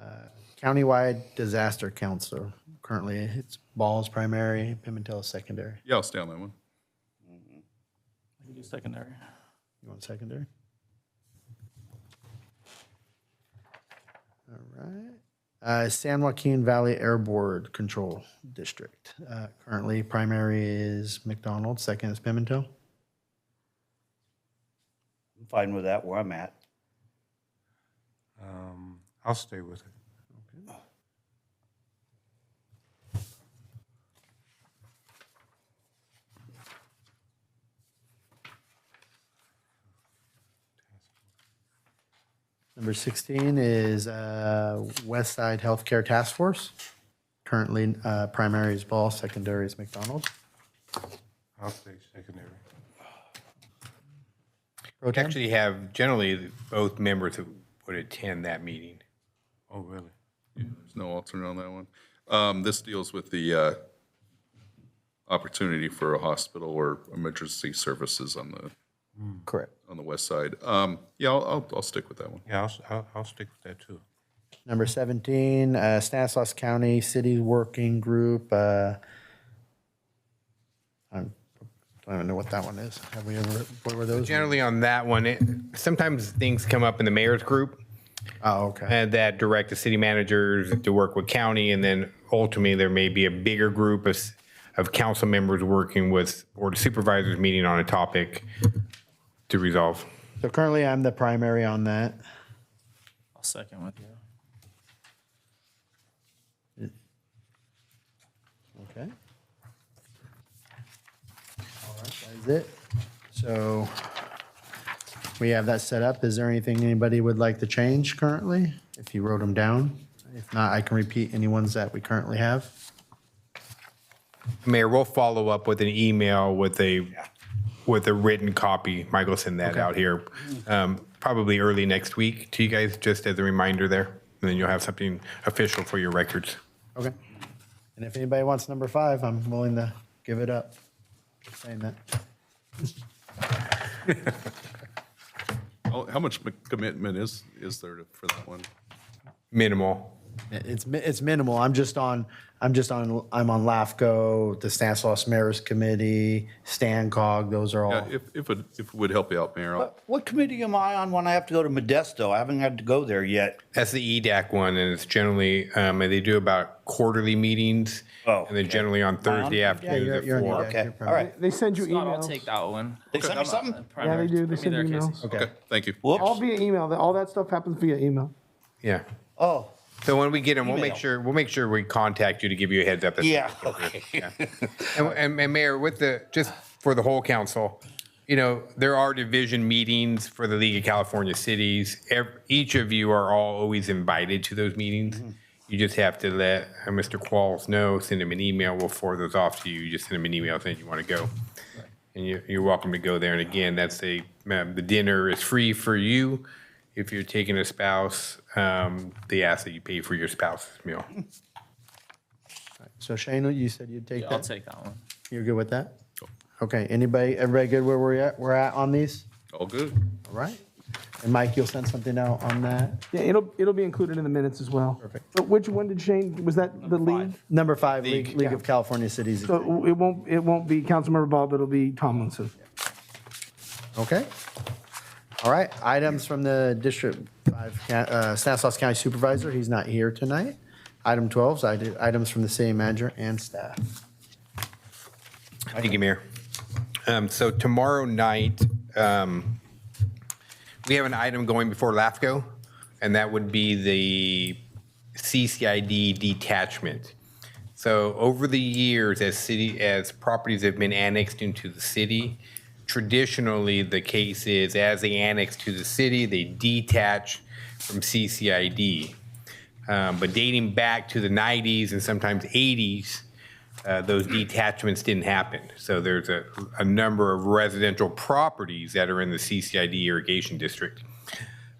Uh, Countywide Disaster Council. Currently, it's Ball's primary, Pimentel is secondary. Yeah, I'll stay on that one. We do secondary. You want secondary? All right. Uh, San Joaquin Valley Air Board Control District. Uh, Currently, primary is McDonald, second is Pimentel. I'm fine with that where I'm at. Um, I'll stay with it. Number 16 is uh, West Side Healthcare Task Force. Currently, uh, primary is Ball, secondary is McDonald. I'll stay secondary. Pro tem? Actually have generally both members who would attend that meeting. Oh, really? There's no alternate on that one. Um, This deals with the uh, opportunity for a hospital or emergency services on the, Correct. on the west side. Um, Yeah, I'll, I'll- I'll stick with that one. Yeah, I'll, s- I'll, I'll stick with that too. Number 17, uh, Stanislaus County City Working Group. uh, I'm- I don't even know what that one is. Have we ever, what were those? Generally on that one, it, sometimes things come up in the mayor's group Oh, okay. and that direct the city managers to work with county. And then ultimately, there may be a bigger group of, s- of council members working with board of supervisors meeting on a topic to resolve. So currently, I'm the primary on that. I'll second with you. Okay. All right, that is it. So we have that set up. Is there anything anybody would like to change currently? If you wrote them down? If not, I can repeat any ones that we currently have. Mayor, we'll follow up with an email with a, with a written copy. Michael send that out here, um, probably early next week to you guys, just as a reminder there. And then you'll have something official for your records. Okay. And if anybody wants number five, I'm willing to give it up. Just saying that. How how much commitment is, is there for that one? Minimal. It- It's, mi- it's minimal. I'm just on, I'm just on, I'm on LAFCO, the Stanislaus Mayor's Committee, StanCog, those are all. Yeah, If, if it if it would help you out, Mayor, I'll- What committee am I on when I have to go to Modesto? I haven't had to go there yet. That's the EDAC one, and it's generally, um, and they do about quarterly meetings. Oh, And they're generally on Thursday afternoons you're- at you're on four. EDAC. Okay, all right. They send you Not, I'll emails. take that one. They sent me something? Yeah, they do. They send you emails. okay, thank you. Whoops. All via email. That- All that stuff happens via email. Yeah. Oh, So when we get them, we'll Email. make sure, we'll make sure we contact you to give you a heads up. yeah, okay. And- And, and Mayor, with the, just for the whole council, you know, there are division meetings for the League of California Cities. Ev- Each of you are all always invited to those meetings. You just have to let uh, Mr. Qualls know, send him an email, we'll forward those off to you. You just send him an email saying you want to go. And you, you're welcome to go there. And again, that's a, um, the dinner is free for you. If you're taking a spouse, um, they ask that you pay for your spouse's meal. So Shane, you said you'd take I'll that? take that one. You're good with that? Okay, anybody, everybody good where we're at, we're at on these? All good. All right. And Mike, you'll send something out on that? Yeah, it'll it'll be included in the minutes as well. Perfect. But which one did Shane? Was that the league? Number five, League, League of California Cities. So it won't it won't be Councilmember Ball, but it'll be Tomlinson. Okay. All right, items from the District 5, ca- uh, Stanislaus County Supervisor, he's not here tonight. Item 12 is ite- items from the city manager and staff. Thank you, Mayor. Um, So tomorrow night, um, we have an item going before LAFCO, and that would be the CCID detachment. So over the years, as city, as properties have been annexed into the city, traditionally, the case is as they annex to the city, they detach from CCID. Um, But dating back to the 90s and sometimes 80s, uh, those detachments didn't happen. So there's a, a number of residential properties that are in the CCID irrigation district.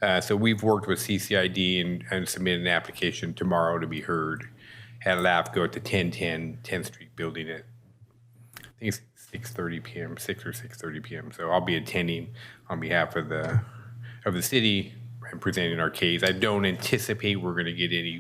Uh, So we've worked with CCID and- and submitted an application tomorrow to be heard at LAFCO at the 1010 10th Street building at, I think it's 6:30 PM, 6 or 6:30 PM. So I'll be attending on behalf of the, of the city and presenting our case. I don't anticipate we're going to get any